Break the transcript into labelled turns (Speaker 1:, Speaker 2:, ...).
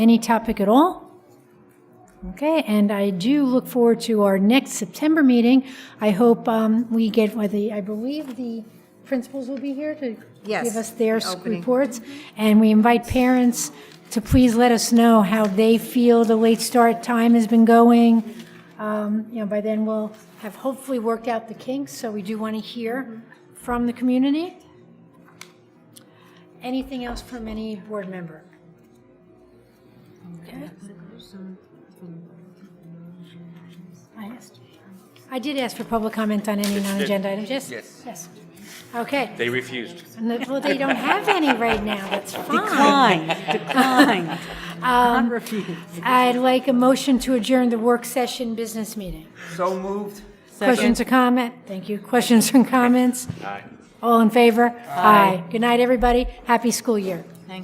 Speaker 1: Any topic at all? Okay, and I do look forward to our next September meeting. I hope um, we get, well, the- I believe the principals will be here to
Speaker 2: Yes,
Speaker 1: give us their
Speaker 2: the
Speaker 1: sc-
Speaker 2: opening.
Speaker 1: reports. And we invite parents to please let us know how they feel the late start time has been going. Um, You know, by then we'll have hopefully worked out the kinks, so we do want to hear from the community. Anything else from any board member? Okay. I asked. I did ask for public comment on any non-agenda items, yes?
Speaker 3: Yes.
Speaker 1: Yes. Okay,
Speaker 3: They refused.
Speaker 1: And the- well, they don't have any right now, that's fine.
Speaker 4: Decline, decline. Not refuse.
Speaker 1: I'd like a motion to adjourn the work session business meeting.
Speaker 3: So moved.
Speaker 1: Questions or comment? Thank you. Questions and comments?
Speaker 3: Aye.
Speaker 1: All in favor? Aye. Good night, everybody. Happy school year.